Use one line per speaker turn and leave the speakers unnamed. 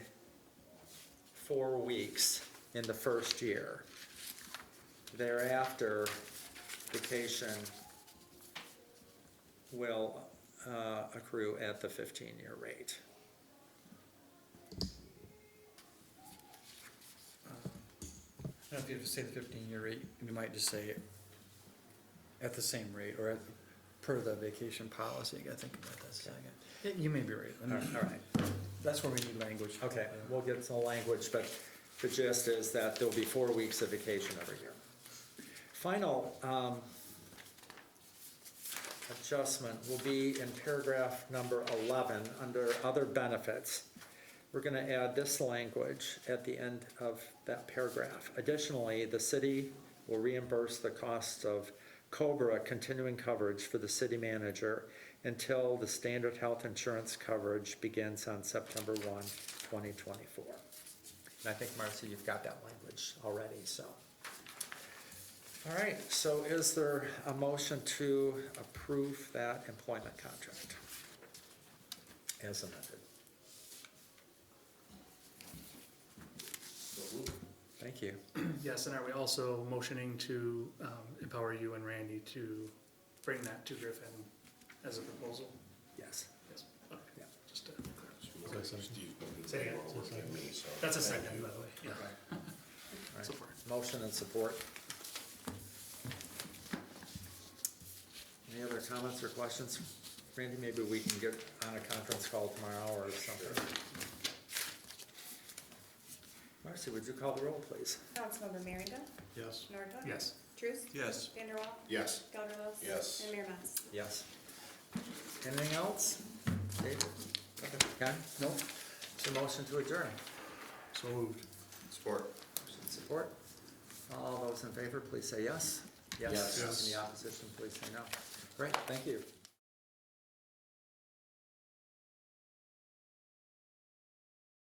four weeks in the first year. Thereafter, vacation will uh, accrue at the 15-year rate.
I don't know if you have to say the fifteen-year rate, you might just say at the same rate or at, per the vacation policy, I gotta think about that a second. Yeah, You may be right, I mean,
All right,
that's where we need language.
okay, we'll get some language, but the gist is that there'll be four weeks of vacation every year. Final um, adjustment will be in paragraph number 11, under other benefits. We're going to add this language at the end of that paragraph. Additionally, the city will reimburse the costs of COBRA continuing coverage for the city manager until the standard health insurance coverage begins on September 1, 2024. And I think, Marcy, you've got that language already, so. All right, so is there a motion to approve that employment contract? As amended. Thank you.
Yes, and are we also motioning to um, empower you and Randy to bring that to Griffin as a proposal?
Yes.
Yes. Okay.
Yeah.
Just to clarify. Say it again. That's a second, by the way. Yeah.
All right.
Support.
Motion and support. Any other comments or questions? Randy, maybe we can get on a conference call tomorrow or something. Marcy, would you call the roll, please?
Councilmember Merringa?
Yes.
Nordhook?
Yes.
Truce?
Yes.
Vanderwall?
Yes.
Gelderlos?
Yes.
And Mayor Mas?
Yes. Anything else? David? Okay. No. So motion to adjourn.
So moved.
Support.
Motion Support. All those in favor, please say yes.
Yes. Yes.
Any opposition, please say no. Great, thank you.